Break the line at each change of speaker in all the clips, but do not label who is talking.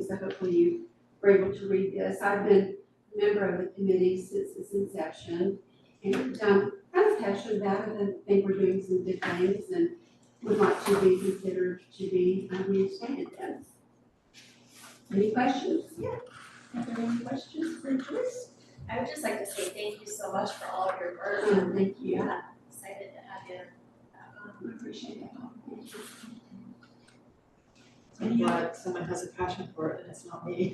so hopefully you were able to read this. I've been a member of the committee since its inception, and um, kind of passionate about it, and think we're doing some good things, and would like to be considered to be um, reinstated then. Any questions? Yeah. Are there any questions for Joyce?
I would just like to say thank you so much for all of your work.
Uh, Thank you.
Yeah, excited to have you. um,
I appreciate that.
I'm glad someone has a passion for it and it's not me.
You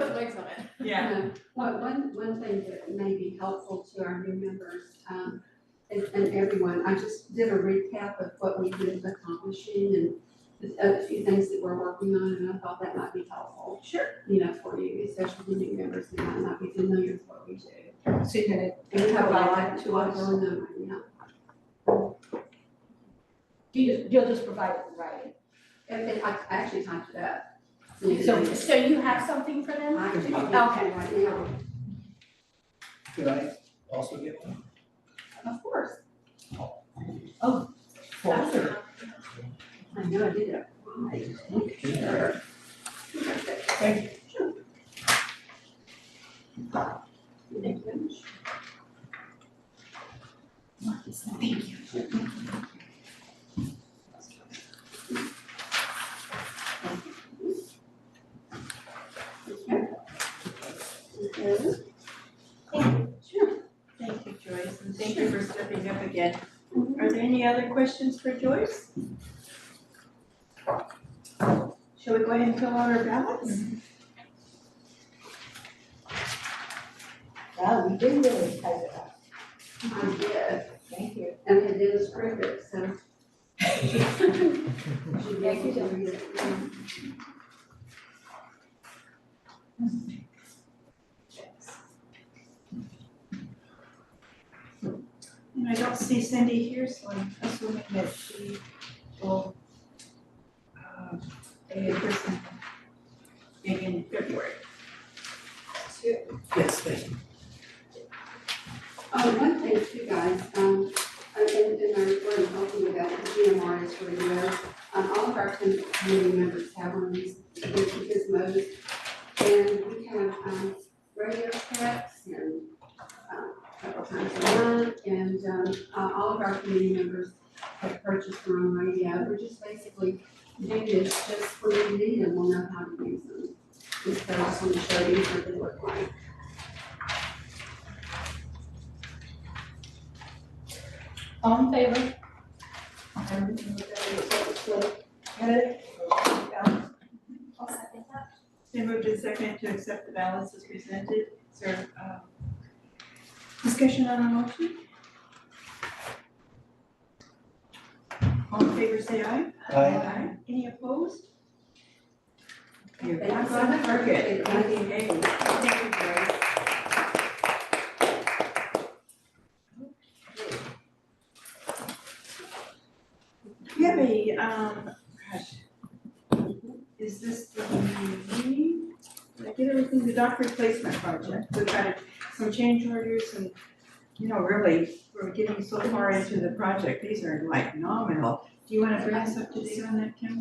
put legs on it.
Yeah.
Um, Well, one, one thing that may be helpful to our new members, um, and, and everyone, I just did a recap of what we've been accomplishing and the, a few things that we're working on, and I thought that might be helpful. Sure. You know, for you, especially the new members who might not be familiar with what we do.
So you're gonna,
And we have a lot to us on them right now.
you just, you'll just provide it in writing.
And they, I I actually typed it up.
So, so you have something for them?
I actually typed it
Okay.
right now.
Could I also get one?
Of course,
Dr.
I know I did it. right.
Sure.
Thank you. Thank you. Okay. Okay. Sure.
Thank you, Joyce, and thank you for stepping up again.
Mm-hmm.
Are there any other questions for Joyce? Shall we go ahead and fill out our ballots?
Wow, we did really type it up.
I did,
Thank you.
and I did a script, it, so. Should be
Thank you,
able to read it.
And I don't see Cindy here, so I'm assuming that she will uh, be in person maybe in February.
Yes, thank you.
Oh, one thing too, guys, um, and, and and I was talking about the GMR is for you, um, all of our committee committee members have one of these, which is most. And we have, um, radio checks and, um, couple times a month, and, um, uh, all of our committee members have purchased their own radio. We're just basically doing this just when we need them, we'll know how to use them. And so I just want to show you what they look like.
All in favor?
I'll second that.
Been moved and seconded to accept the ballots as presented. Is there, um, discussion on a motion? All in favor, say aye.
Uh,
Aye.
Any opposed? You're
Thank you so
on the
much.
target.
Thank you.
Okay, thank you, Joyce. We have a, um, gosh. Is this the, meeting? Did I get everything, the dock replacement project, we've got some change orders and, you know, really, we're getting so far into the project, these are like nominal. Do you wanna bring us up to date on that, Kim?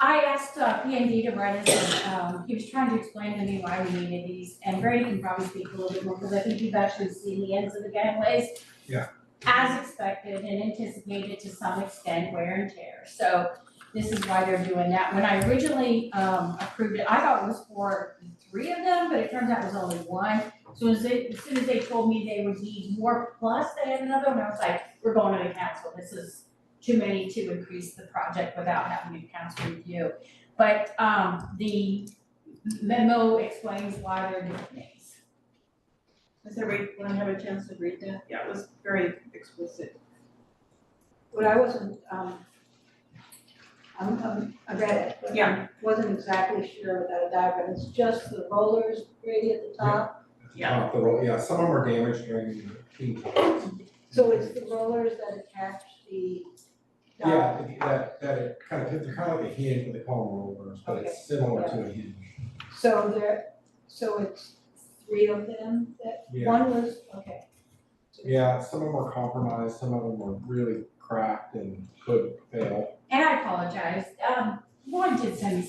I asked uh, P and D to run it, and um, he was trying to explain to me why we needed these, and Brady can probably speak a little bit more, because I think you've actually seen the ends of the gangways.
Yeah.
As expected and anticipated to some extent wear and tear, so this is why they're doing that. When I originally um, approved it, I thought it was for three of them, but it turns out it was only one. So as they- as soon as they told me they would need more, plus they had another one, I was like, we're going to the council, this is too many to increase the project without having a council review. But um the memo explains why they're doing things.
Does everyone have a chance to read that? Yeah, it was very explicit.
What I wasn't, um, I'm, I'm, I read it. but
Yeah.
Wasn't exactly sure without a diagram. It's just the rollers really at the top.
Yeah.
Off the roll, yeah, some of them are damaged during the heat times.
So it's the rollers that attach the dock.
Yeah, if you- that, that it kind of, they're kind of like a hinge, but they call them rollers, but it's similar to a hinge.
So there, so it's three of them that,
Yeah,
one was, okay.
yeah, some of them are compromised, some of them are really cracked and could fail.
And I apologize, um Lauren did send me